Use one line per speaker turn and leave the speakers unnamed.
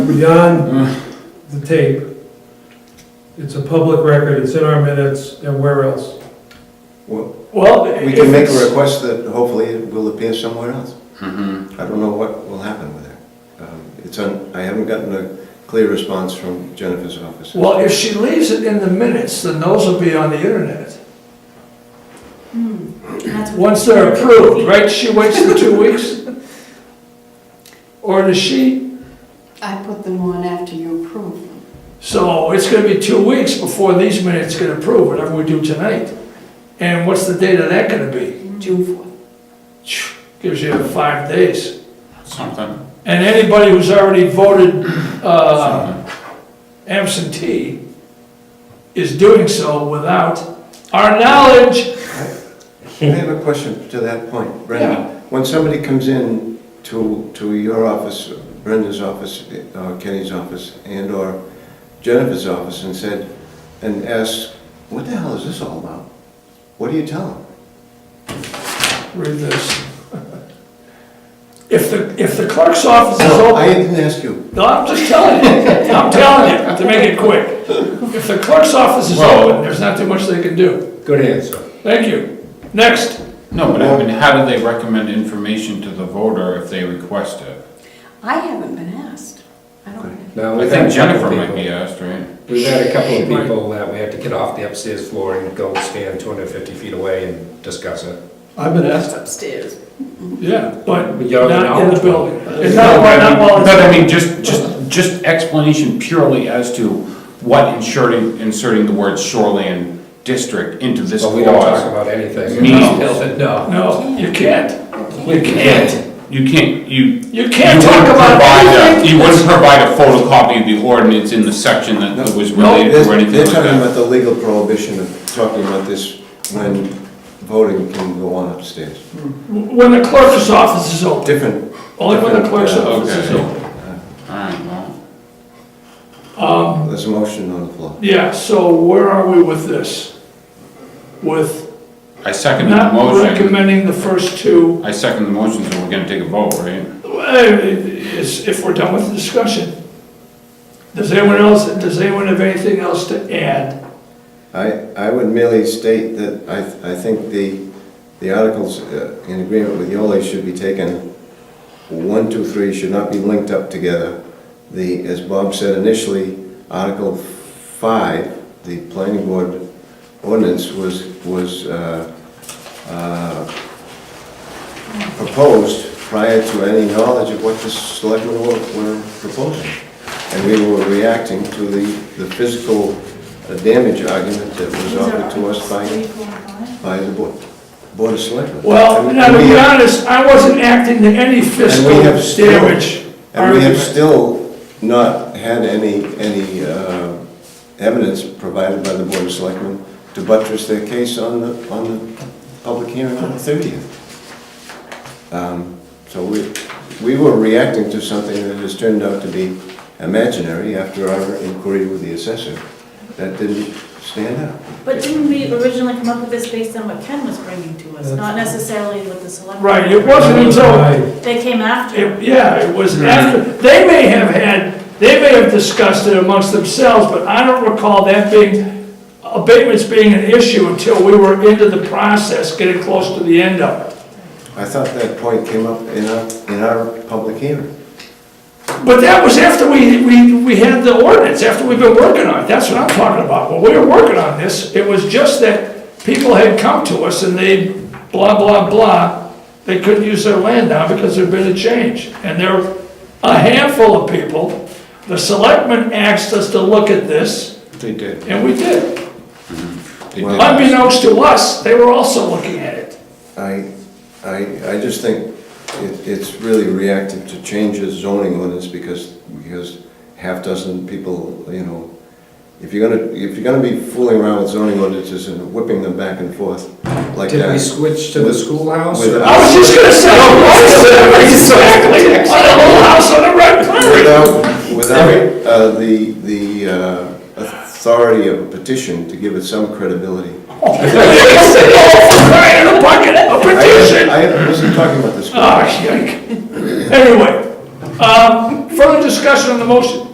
beyond
Uh.
the tape. It's a public record, it's in our minutes, and where else?
Well,
Well,
we
if
can make
it's-
a request that hopefully it will appear somewhere else.
Mm-hmm.
I don't know what will happen with it. Um, It's, un- I haven't gotten a clear response from Jennifer's office.
Well, if she leaves it in the minutes, then those will be on the internet.
Hmm. That's-
Once they're approved, right? She waits the two weeks? Or does she?
I put them on after you approve them.
So it's gonna be two weeks before these minutes get approved, whatever we do tonight. And what's the date of that gonna be?
June 4th.
Phew, Gives you five days.
Something.
And anybody who's already voted uh, absentee is doing so without our knowledge.
I have a question to that point,
Yeah.
Brenda. When somebody comes in to, to your office, Brenda's office, or Kenny's office, and/or Jennifer's office and said, and asks, what the hell is this all about? What do you tell them?
Read this. If the, if the clerk's office is
No, I
open,
didn't ask you.
no, I'm just telling you, I'm telling you, to make it quick. If the clerk's office is
Well-
open, there's not too much they can do.
Good answer.
Thank you. Next,
No, but I mean, how do they recommend information to the voter if they request it?
I haven't been asked. I don't know.
Now,
I
we've
think
had a couple
Jennifer
of
might be
people,
asked, right?
we've had a couple of people that we had to get off the upstairs floor and go stand 250 feet away and discuss it.
I've been asked,
Upstairs.
yeah, but
But you're
not in the
not.
building. It's not, why not while it's-
But I mean, just, just, just explanation purely as to what inserting, inserting the word shoreland district into this
But we don't talk
clause.
about anything. in
Means.
this building, No.
No, you can't.
We can't.
You can't, you.
You can't
you
talk
wouldn't
about
provide a-
anything.
You wouldn't provide a photocopy of the ordinance in the section that was related
They're
or anything
they're
like
talking
that.
about the legal prohibition of talking about this when voting can go on upstairs.
When the clerk's office is open,
Different.
only when the clerk's
different, uh,
office is
okay.
open.
Alright, well,
Um,
Um,
There's a motion on the floor.
Yeah, so where are we with this? With
I second the
not
motion.
recommending the first two
I second the motion, so we're gonna take a vote, right?
Well, it's- If we're done with the discussion, does anyone else, does anyone have anything else to add?
I, I would merely state that I, I think the, the articles uh, in agreement with Yoli should be taken, one, two, three should not be linked up together. The, as Bob said initially, Article five, the planning board ordinance was, was, uh, uh, proposed prior to any knowledge of what the selectmen were, were proposing. And we were reacting to the, the physical uh, damage argument that was offered to us by, by the board, board of selectmen.
Well,
And
now to
we
be
have-
honest, I wasn't acting to any
and
fiscal
we have still-
damage
And we have
argument.
still not had any, any uh, evidence provided by the Board of Selectmen to buttress their case on the, on the public hearing on the 30th. Um, So we, we were reacting to something that has turned out to be imaginary after our inquiry with the assessor. That didn't stand out.
But didn't we originally come up with this based on what Ken was bringing to us, not necessarily what the select?
Right, it wasn't until,
Aye.
They came after.
it- yeah, it was after, they may have had, they may have discussed it amongst themselves, but I don't recall that being, abatements being an issue until we were into the process, getting close to the end of it.
I thought that point came up in our, in our public hearing.
But that was after we, we, we had the ordinance, after we've been working on it, that's what I'm talking about. When we were working on this, it was just that people had come to us and they blah, blah, blah, they couldn't use their land now because there'd been a change. And there were a handful of people, the selectmen asked us to look at this,
They did.
and we did.
They did.
Unbeknownst to us, they were also looking at it.
I, I, I just think it, it's really reactive to change the zoning ordinance because, because half dozen people, you know, if you're gonna, if you're gonna be fooling around with zoning ordinances and whipping them back and forth like that.
Did we switch to the
with-
schoolhouse?
with-
or-
I was just gonna say, exactly, on the whole house on the red
Without,
prairie.
without uh, the, the uh, authority of a petition to give it some credibility.
It's an awful crying in a bucket, a
I,
petition.
Oh,
I wasn't talking about this.
Ah, yike. Anyway, Um, Further discussion on the motion?